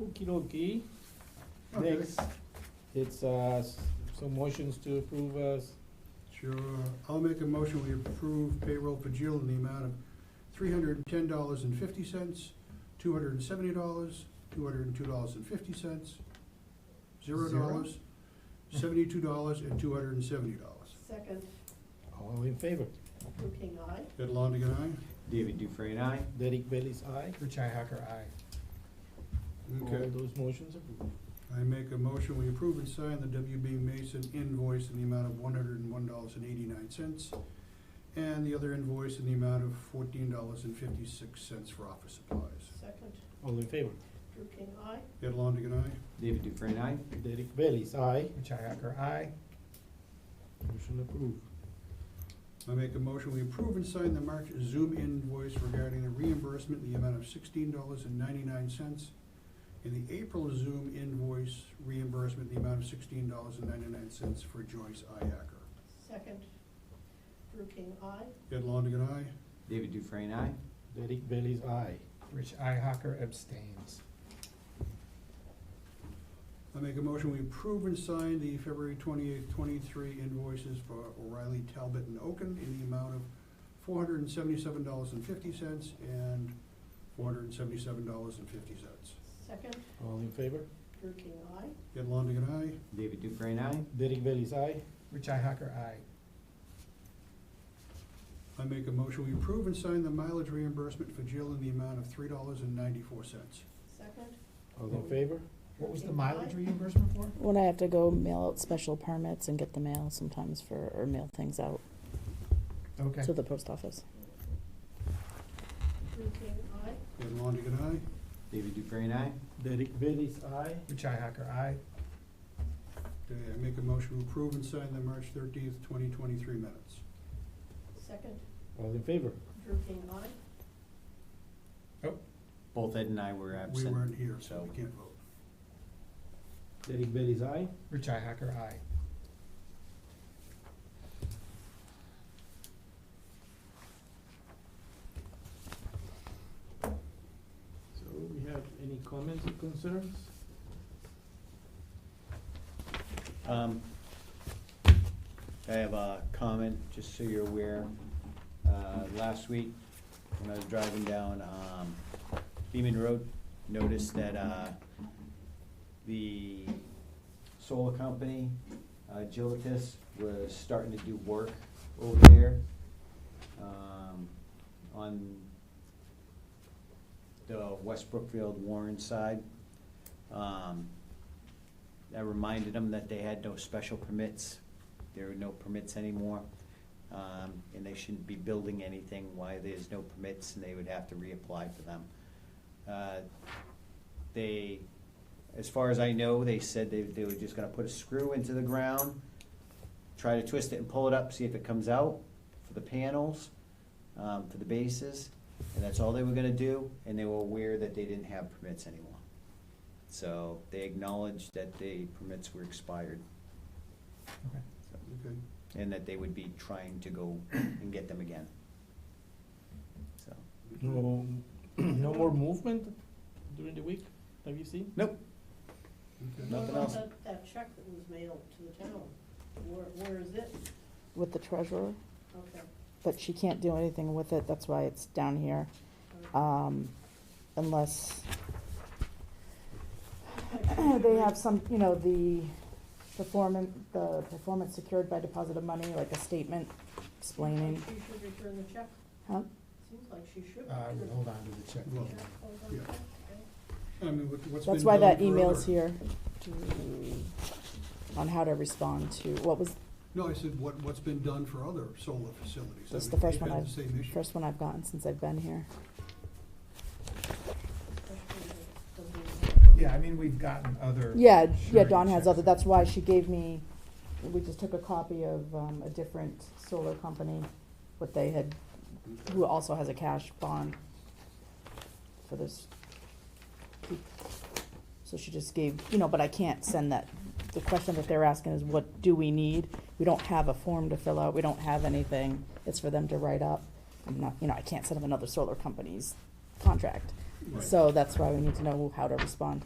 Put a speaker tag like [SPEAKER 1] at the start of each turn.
[SPEAKER 1] Okie dokie.
[SPEAKER 2] Okay.
[SPEAKER 1] Next, it's, uh, s- some motions to approve, uh, s-
[SPEAKER 2] Sure. I'll make a motion, we approve payroll for Jill in the amount of three hundred and ten dollars and fifty cents, two hundred and seventy dollars, two hundred and two dollars and fifty cents, zero
[SPEAKER 1] Zero?
[SPEAKER 2] dollars, seventy-two dollars, and two hundred and seventy dollars.
[SPEAKER 3] Second,
[SPEAKER 1] all in favor?
[SPEAKER 3] Drew King, aye.
[SPEAKER 2] Ed Longigan, aye?
[SPEAKER 4] David Dufresne, aye.
[SPEAKER 1] Derek Bailey's aye.
[SPEAKER 5] Richi Hacker, aye.
[SPEAKER 1] All those motions approved.
[SPEAKER 2] I make a motion, we approve and sign the WB Mason invoice in the amount of one hundred and one dollars and eighty-nine cents, and the other invoice in the amount of fourteen dollars and fifty-six cents for office supplies.
[SPEAKER 3] Second,
[SPEAKER 1] All in favor?
[SPEAKER 3] Drew King, aye.
[SPEAKER 2] Ed Longigan, aye?
[SPEAKER 4] David Dufresne, aye.
[SPEAKER 1] Derek Bailey's aye.
[SPEAKER 5] Richi Hacker, aye.
[SPEAKER 1] Motion approved.
[SPEAKER 2] I make a motion, we approve and sign the March Zoom invoice regarding the reimbursement in the amount of sixteen dollars and ninety-nine cents, and the April Zoom invoice reimbursement in the amount of sixteen dollars and ninety-nine cents for Joyce Iacker.
[SPEAKER 3] Second, Drew King, aye.
[SPEAKER 2] Ed Longigan, aye?
[SPEAKER 4] David Dufresne, aye.
[SPEAKER 1] Derek Bailey's aye.
[SPEAKER 5] Richi Hacker abstains.
[SPEAKER 2] I make a motion, we approve and sign the February twenty-eighth, twenty-three invoices for O'Reilly, Talbot, and Oaken in the amount of four hundred and seventy-seven dollars and fifty cents and four hundred and seventy-seven dollars and fifty cents.
[SPEAKER 3] Second,
[SPEAKER 1] All in favor?
[SPEAKER 3] Drew King, aye.
[SPEAKER 2] Ed Longigan, aye?
[SPEAKER 4] David Dufresne, aye.
[SPEAKER 1] Derek Bailey's aye.
[SPEAKER 5] Richi Hacker, aye.
[SPEAKER 2] I make a motion, we approve and sign the mileage reimbursement for Jill in the amount of three dollars and ninety-four cents.
[SPEAKER 3] Second,
[SPEAKER 1] All in favor?
[SPEAKER 5] What was the mileage reimbursement for?
[SPEAKER 6] When I have to go mail out special permits and get the mail sometimes for, or mail things out
[SPEAKER 5] Okay.
[SPEAKER 6] to the post office.
[SPEAKER 3] Drew King, aye.
[SPEAKER 2] Ed Longigan, aye?
[SPEAKER 4] David Dufresne, aye.
[SPEAKER 1] Derek Bailey's aye.
[SPEAKER 5] Richi Hacker, aye.
[SPEAKER 2] Okay, I make a motion, we approve and sign the March thirteenth, twenty twenty-three minutes.
[SPEAKER 3] Second,
[SPEAKER 1] All in favor?
[SPEAKER 3] Drew King, aye.
[SPEAKER 4] Both Ed and I were
[SPEAKER 2] We
[SPEAKER 4] absent.
[SPEAKER 2] weren't here, so
[SPEAKER 4] So,
[SPEAKER 2] we can't vote.
[SPEAKER 1] Derek Bailey's aye.
[SPEAKER 5] Richi Hacker, aye.
[SPEAKER 1] So we have any comments or concerns?
[SPEAKER 4] um, I have a comment, just so you're aware. Uh, last week, when I was driving down, um, Beaman Road, noticed that, uh, the solar company, uh, Gilatis, was starting to do work over there, um, on the West Brookfield Warren side. Um, I reminded them that they had no special permits, there are no permits anymore. Um, and they shouldn't be building anything, why there's no permits, and they would have to reapply for them. Uh, They, as far as I know, they said they, they were just gonna put a screw into the ground, try to twist it and pull it up, see if it comes out for the panels, um, for the bases, and that's all they were gonna do, and they were aware that they didn't have permits anymore. So they acknowledged that the permits were expired
[SPEAKER 5] Okay.
[SPEAKER 4] so,
[SPEAKER 2] Okay.
[SPEAKER 4] and that they would be trying to go and get them again. So,
[SPEAKER 1] No, no more movement during the week, have you seen?
[SPEAKER 4] nope,
[SPEAKER 2] Okay.
[SPEAKER 4] Nothing
[SPEAKER 3] What about
[SPEAKER 4] else.
[SPEAKER 3] that- That check that was mailed to the town, where, where is it?
[SPEAKER 6] With the treasurer,
[SPEAKER 3] Okay.
[SPEAKER 6] but she can't do anything with it, that's why it's down here,
[SPEAKER 3] all
[SPEAKER 6] um, unless
[SPEAKER 3] right.
[SPEAKER 6] they have some, you know, the performance, the performance secured by deposit of money, like a statement explaining,
[SPEAKER 3] She should return the check,
[SPEAKER 6] huh?
[SPEAKER 3] seems like she should.
[SPEAKER 5] Uh, I would hold on to the check.
[SPEAKER 2] Well,
[SPEAKER 3] Check, hold on,
[SPEAKER 2] Yeah.
[SPEAKER 3] okay.
[SPEAKER 2] I mean, what- what's been
[SPEAKER 6] That's why
[SPEAKER 2] done
[SPEAKER 6] that
[SPEAKER 2] for
[SPEAKER 6] email's
[SPEAKER 2] other-
[SPEAKER 6] here to- on how to respond to, what was
[SPEAKER 2] No, I said, what, what's been done for other solar facilities? I
[SPEAKER 6] That's
[SPEAKER 2] mean,
[SPEAKER 6] the first
[SPEAKER 2] they've
[SPEAKER 6] one
[SPEAKER 2] had
[SPEAKER 6] I've-
[SPEAKER 2] the same
[SPEAKER 6] the
[SPEAKER 2] issue.
[SPEAKER 6] first one I've gotten since I've been here?
[SPEAKER 5] Yeah, I mean, we've gotten other.
[SPEAKER 6] Yeah, yeah,
[SPEAKER 5] surety
[SPEAKER 6] Dawn has
[SPEAKER 5] checks.
[SPEAKER 6] other, that's why she gave me, we just took a copy of, um, a different solar company, what they had,
[SPEAKER 2] Mm-hmm.
[SPEAKER 6] who also has a cash bond for this. So she just gave, you know, but I can't send that, the question that they're asking is what do we need? We don't have a form to fill out, we don't have anything, it's for them to write up. I'm not, you know, I can't send them another solar company's contract,
[SPEAKER 2] Right.
[SPEAKER 6] so that's why we need to know how to respond